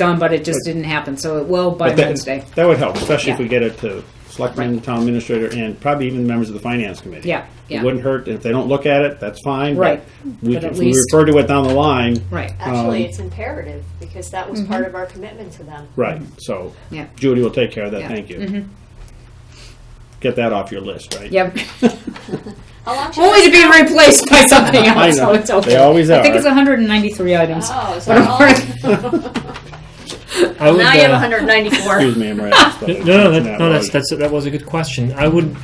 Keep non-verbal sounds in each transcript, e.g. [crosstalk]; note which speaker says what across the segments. Speaker 1: done, but it just didn't happen. So it will by
Speaker 2: But that-
Speaker 1: Wednesday.
Speaker 2: That would help, especially if
Speaker 1: Yeah.
Speaker 2: we get it to selectmen, town administrator, and probably even members of the finance committee.
Speaker 1: Yeah, yeah.
Speaker 2: It wouldn't hurt, if they don't look at it, that's fine. but
Speaker 1: Right.
Speaker 2: we-
Speaker 1: But at
Speaker 2: If we
Speaker 1: least-
Speaker 2: refer to it down the line.
Speaker 1: Right.
Speaker 2: Um,
Speaker 3: Actually, it's imperative because that was part of our commitment to them.
Speaker 2: Right, so
Speaker 1: Yeah.
Speaker 2: Judy will take care of that,
Speaker 1: Yeah. Mm-hmm.
Speaker 2: thank you. Get that off your list, right? [laughs]
Speaker 1: Yep. [laughs]
Speaker 3: How long should
Speaker 1: Only
Speaker 3: I-
Speaker 1: to be replaced by something
Speaker 2: [laughs] I
Speaker 1: else.
Speaker 2: know.
Speaker 1: So it's okay.
Speaker 2: They always
Speaker 1: I think
Speaker 2: are.
Speaker 1: it's 193 items.
Speaker 3: Oh, [laughs] is that all?
Speaker 4: I would,
Speaker 3: Now you have
Speaker 4: uh,
Speaker 3: 194.
Speaker 2: Excuse me, I'm right.
Speaker 4: [laughs] No, no, that, no that's, that's that was a good question. I would,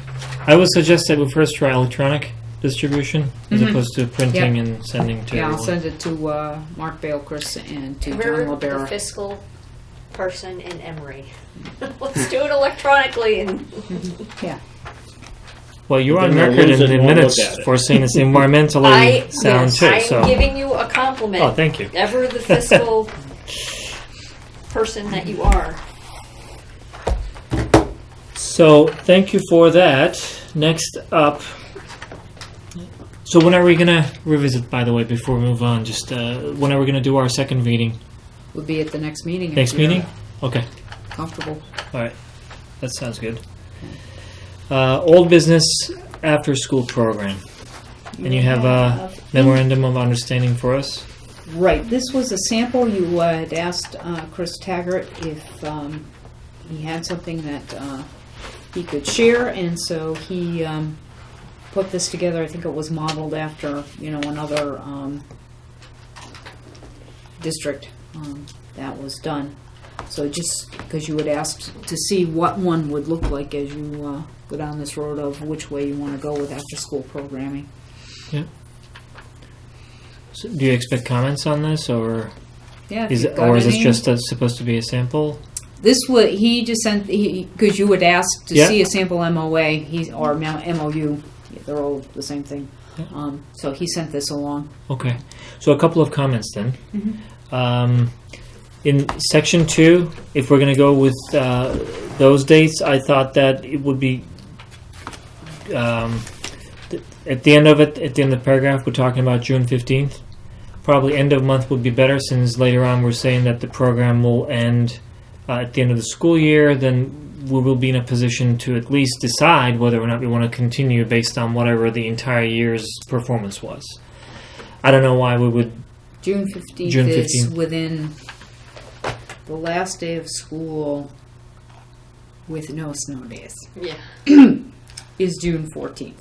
Speaker 4: I would suggest that we first try electronic distribution as
Speaker 3: Mm-hmm.
Speaker 4: opposed to printing and sending
Speaker 1: [laughs]
Speaker 4: to.
Speaker 1: Yeah, I'll
Speaker 4: everyone.
Speaker 1: [laughs] send it to uh, Mark Bale, Chris, and to John
Speaker 3: Oh. We're the
Speaker 1: LaBera.
Speaker 3: fiscal person in Emory. [laughs] Let's do it electronically and
Speaker 1: Yeah.
Speaker 4: Well, you're
Speaker 2: Then
Speaker 4: on
Speaker 2: they'll
Speaker 4: record
Speaker 2: lose
Speaker 4: in
Speaker 2: it
Speaker 4: the
Speaker 2: and won't look at
Speaker 4: minutes
Speaker 2: it.
Speaker 4: for
Speaker 3: [laughs]
Speaker 4: saying it's environmentally
Speaker 3: I,
Speaker 4: sound
Speaker 3: yes,
Speaker 4: too.
Speaker 3: I'm
Speaker 4: so,
Speaker 3: giving you a compliment.
Speaker 4: oh, thank you.
Speaker 3: Ever the fiscal person that you are.
Speaker 4: So, thank you for that. Next up. So, when are we gonna revisit? By the way, before we move on, just uh, when are we gonna do our second meeting?
Speaker 1: We'll be at the next meeting. if
Speaker 4: Next
Speaker 1: you're
Speaker 4: meeting? Okay.
Speaker 1: Comfortable.
Speaker 4: All right, that sounds good. Uh, old business after school program. And you have uh, a memorandum of understanding for us?
Speaker 1: Right, this was a sample. You uh, had asked uh, Chris Taggart if um, he had something that uh, he could share, and so he um, put this together. I think it was modeled after, you know, another um, district um, that was done. So just because you had asked to see what one would look like as you uh, go down this road of which way you want to go with after-school programming.
Speaker 4: So do you expect comments on this, or
Speaker 1: Yeah, if
Speaker 4: is
Speaker 1: you've
Speaker 4: it,
Speaker 1: got
Speaker 4: or is this
Speaker 1: any-
Speaker 4: just a, supposed to be a sample?
Speaker 1: This would he just sent because you would ask to
Speaker 4: Yeah.
Speaker 1: see a sample MOA he or mo- MOU. Yeah, They're all the same thing.
Speaker 4: Yeah.
Speaker 1: Um, so he sent this along.
Speaker 4: Okay, so a couple of comments then. Um, in section two, if we're going to go with uh, those dates, I thought that it would be um, th- at the end of it, at the end of the paragraph, we're talking about June 15th. Probably end of month would be better since later on we're saying that the program will end uh, at the end of the school year. Then we will be in a position to at least decide whether or not we want to continue based on whatever the entire year's performance was. I don't know why we would.
Speaker 1: June fifteenth
Speaker 4: June
Speaker 1: is
Speaker 4: 15th.
Speaker 1: within the last day of school with no snow days
Speaker 3: Yeah.
Speaker 1: is June fourteenth.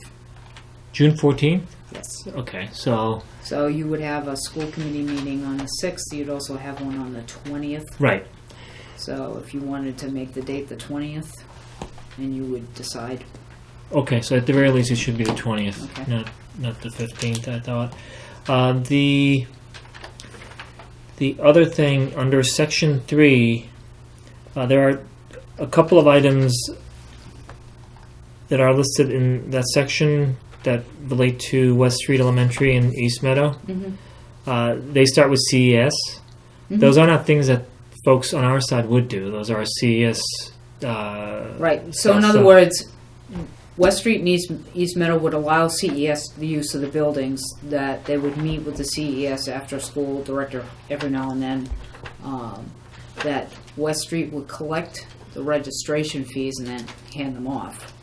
Speaker 4: June 14th?
Speaker 1: Yes.
Speaker 4: Okay, so.
Speaker 1: So you would have a school committee meeting on the sixth. You'd also have one on the twentieth.
Speaker 4: Right.
Speaker 1: So if you wanted to make the date the twentieth, and you would decide.
Speaker 4: Okay, so at the very least, it should be the 20th,
Speaker 1: Okay.
Speaker 4: not, not the 15th, I thought. Uh, the. The other thing under section 3, uh, there are a couple of items that are listed in that section that relate to West Street Elementary and East Meadow.
Speaker 1: Mm-hmm.
Speaker 4: Uh, they start with CES. Those are not things that folks on our side would do. Those are CES. Uh,
Speaker 1: Right, so in
Speaker 4: So-
Speaker 1: other
Speaker 4: so-
Speaker 1: words, West Street and East, East Meadow would allow CES the use of the buildings, that they would meet with the E CES after-school director every now and then. um, That West Street would collect the registration fees and then hand them off,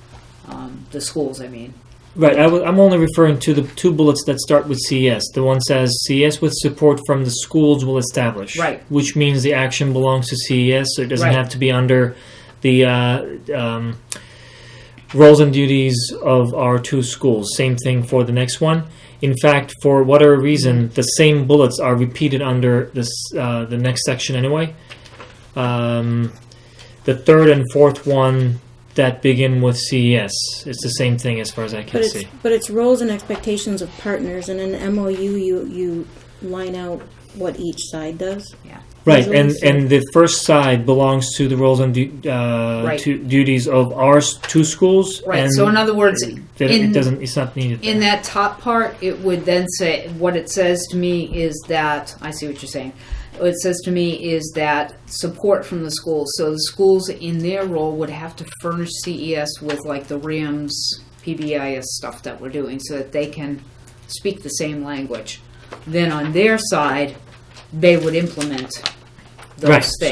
Speaker 1: um, the schools, I mean.
Speaker 4: Right. I w- I'm only referring to the two bullets that start with CES. The one says CES with support from the schools will establish.
Speaker 1: Right.
Speaker 4: Which means the action belongs to CES, so it doesn't
Speaker 1: Right.
Speaker 4: have to be under the uh, um, roles and duties of our two schools. Same thing for the next one. In fact, for whatever reason, the same bullets are repeated under this uh, the next section anyway. Um, the third and fourth one that begin with CES. It's the same thing as far as I can
Speaker 5: But
Speaker 4: see.
Speaker 5: it's, but it's roles and expectations of partners, and in an MOU, you, you line out what each side does.
Speaker 4: Right,
Speaker 5: Usually
Speaker 4: and
Speaker 5: so.
Speaker 4: and the first side belongs to the roles and du- uh,
Speaker 1: Right.
Speaker 4: to duties of our s- two schools.
Speaker 1: Right,
Speaker 4: and
Speaker 1: so in other words,
Speaker 4: that
Speaker 1: in-
Speaker 4: it doesn't. It's not needed.
Speaker 1: In
Speaker 4: there.
Speaker 1: that top part, it would then say, what it says to me is that, I see what you're saying. What it says to me is that support from the schools. So the schools in their role would have to furnish CES with like the RIMS, PBIS stuff that we're doing so that they can speak the same language. Then on their side, they would implement those
Speaker 4: Right,
Speaker 1: things.
Speaker 4: so